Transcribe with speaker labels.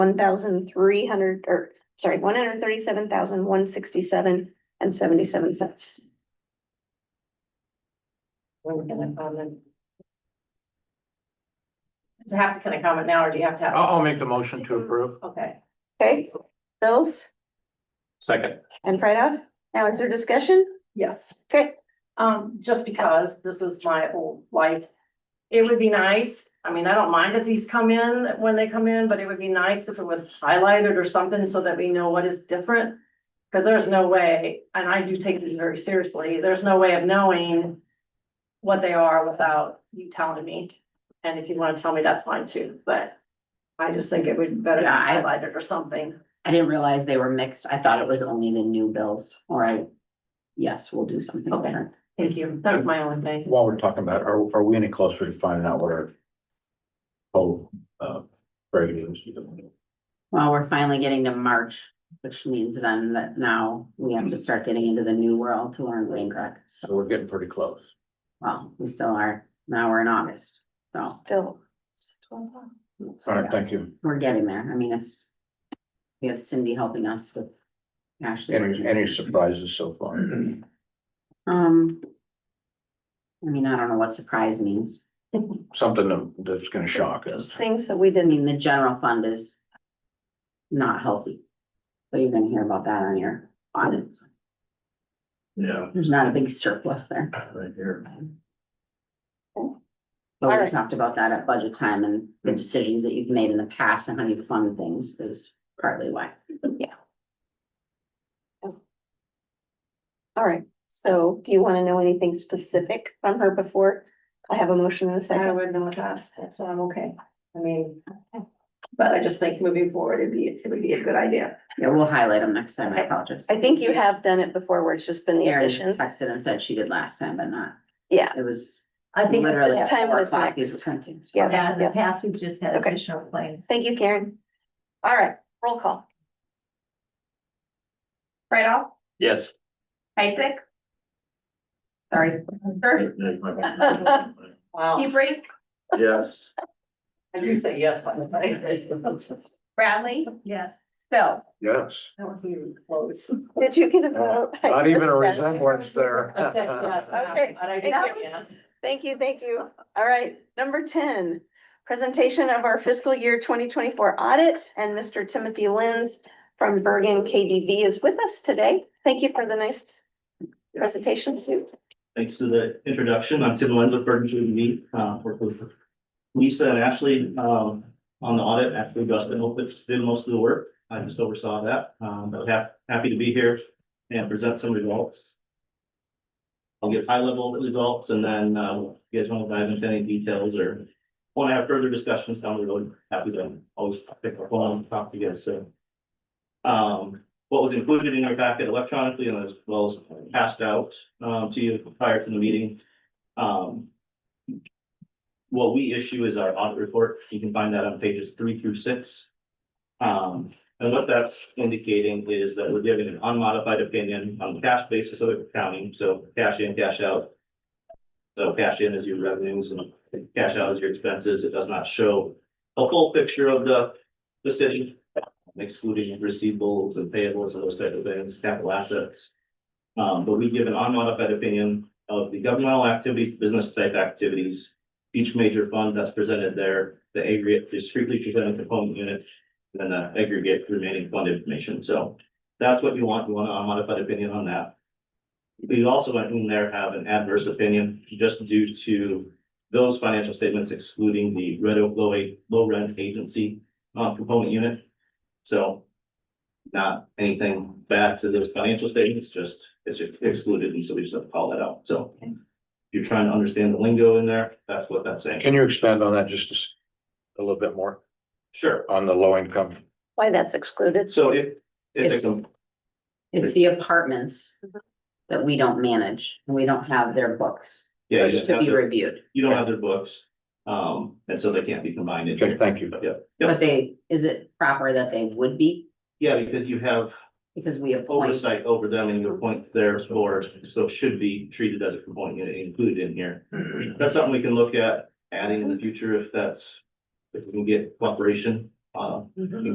Speaker 1: one thousand three hundred, or, sorry, one hundred thirty-seven thousand, one sixty-seven and seventy-seven cents.
Speaker 2: When can I comment? um, Does it have to, can I comment now, or do you have to have,
Speaker 3: I'll, I'll make the motion to approve.
Speaker 2: okay,
Speaker 1: Okay, bills
Speaker 3: Second.
Speaker 1: and write-off. Now is there discussion?
Speaker 2: yes.
Speaker 1: Okay.
Speaker 2: Um, just because this is my whole life, it would be nice, I mean, I don't mind if these come in when they come in, but it would be nice if it was highlighted or something so that we know what is different. Cause there's no way, and I do take these very seriously, there's no way of knowing what they are without you telling me. And if you wanna tell me, that's fine too, but I just think it would be better to
Speaker 4: Yeah, I-
Speaker 2: highlight it or something.
Speaker 4: I didn't realize they were mixed. I thought it was only the new bills, or I, yes, we'll do something
Speaker 2: Okay.
Speaker 4: different.
Speaker 2: Thank you, that's my only thing.
Speaker 5: While we're talking about, it, are, are we any closer to finding out what our whole, uh, revenue is?
Speaker 4: Well, we're finally getting to March, which means then that now we have to start getting into the new world to learn Wayne Greg.
Speaker 5: So we're getting pretty close.
Speaker 4: Well, we still are. Now we're in August, so.
Speaker 1: Bill.
Speaker 5: All right, thank you.
Speaker 4: We're getting there. I mean, it's, we have Cindy helping us with Ashley.
Speaker 5: Any, any surprises so far?
Speaker 4: Um. I mean, I don't know what surprise means.
Speaker 5: Something that- that's gonna shock us.
Speaker 1: Things that we
Speaker 4: I
Speaker 1: didn't,
Speaker 4: mean, the general fund is not healthy. So you're gonna hear about that on your audits.
Speaker 3: Yeah.
Speaker 4: There's not a big surplus there.
Speaker 5: Right here.
Speaker 4: But we
Speaker 1: Alright.
Speaker 4: talked about that at budget time and the decisions that you've made in the past and how you fund things is partly why.
Speaker 1: all right, so do you wanna know anything specific from her before? I have a motion in a
Speaker 2: I
Speaker 1: second.
Speaker 2: would not ask, so I'm um, okay. I mean, but I just think moving forward, it'd be, it would be a good idea.
Speaker 4: Yeah, we'll highlight them next time. I apologize.
Speaker 1: I think you have done it before where it's just been the
Speaker 4: Erin
Speaker 1: addition.
Speaker 4: texted and said she did last time, but not.
Speaker 1: Yeah.
Speaker 4: It was
Speaker 6: I think in
Speaker 4: literally.
Speaker 1: this time
Speaker 4: four
Speaker 1: was
Speaker 4: copies
Speaker 1: mixed.
Speaker 4: of printings.
Speaker 1: Yeah.
Speaker 6: the past, we've just had
Speaker 1: Okay.
Speaker 6: additional claims.
Speaker 1: Thank you, Karen. All right, roll call.
Speaker 6: Right off,
Speaker 3: Yes.
Speaker 6: Isaac,
Speaker 1: Sorry.
Speaker 2: Wow,
Speaker 6: break,
Speaker 3: Yes.
Speaker 2: I do say yes, by the way. That
Speaker 6: Bradley. Yes. Phil.
Speaker 5: Yes,
Speaker 2: was even close.
Speaker 1: Did you get a vote?
Speaker 5: not even a
Speaker 1: Yes.
Speaker 5: resemblance there.
Speaker 2: I said yes, and I-
Speaker 1: Okay.
Speaker 2: But I did say yes.
Speaker 1: Thank you, thank you. All right, number ten, presentation of our fiscal year twenty twenty-four audit, and Mr. Timothy Lenz from Bergen KDV is with us today. Thank you for the nice presentation too.
Speaker 7: Thanks to the introduction. I'm Tim Lenz of Burton Tree Me, uh, work with Lisa and Ashley, um, on the audit. Ashley Gustin Opitz did most of the work. I just oversaw that. Um, but hap- happy to be here and present some results. I'll give high level results and then, uh, if you guys want to dive into any details or want to have further discussions down the road, happy to always pick up phone and talk to you guys soon. Um, what was included in your packet electronically and as well as passed out um to you prior to the meeting. Um. What we issue is our audit report. You can find that on pages three through six. Um, and what that's indicating is that we're giving an unmodified opinion on the cash basis of accounting, so cash in, cash out. So cash in is your revenues and cash out is your expenses. It does not show a full picture of the the city excluding receivables and payables and those type of things, capital assets. Um, but we give an unmodified opinion of the governmental activities, business type activities. Each major fund that's presented there, the aggregate discreetly presented component unit, and then the uh, aggregate remaining fund information, so. That's what you want, you want an unmodified opinion on that. We also went in there have an adverse opinion just due to those financial statements excluding the Red Oak Low, Low Rent Agency, uh, component unit. So not anything bad to those financial statements, just it's excluded, and so we just have to call that out, so. If you're trying to understand the lingo in there, that's what that's saying.
Speaker 5: Can you expand on that just a s- a little bit more
Speaker 7: Sure,
Speaker 5: on the low income?
Speaker 1: Why that's excluded?
Speaker 7: so if it's a,
Speaker 4: It's-
Speaker 7: com-
Speaker 4: It's the apartments that we don't manage and we don't have their books
Speaker 7: yeah, you just
Speaker 4: to
Speaker 7: have
Speaker 4: be
Speaker 7: to-
Speaker 4: reviewed.
Speaker 7: you don't have their books, um, and so they can't be combined in
Speaker 5: Okay,
Speaker 7: here.
Speaker 5: thank you.
Speaker 7: But yeah,
Speaker 4: But they, is it proper that they would be?
Speaker 7: yeah, because you have
Speaker 4: Because we appoint.
Speaker 7: oversight over them and you appoint their board, so it should be treated as a component unit included in here. That's something we can look at adding in the future if that's, if we can get cooperation, uh,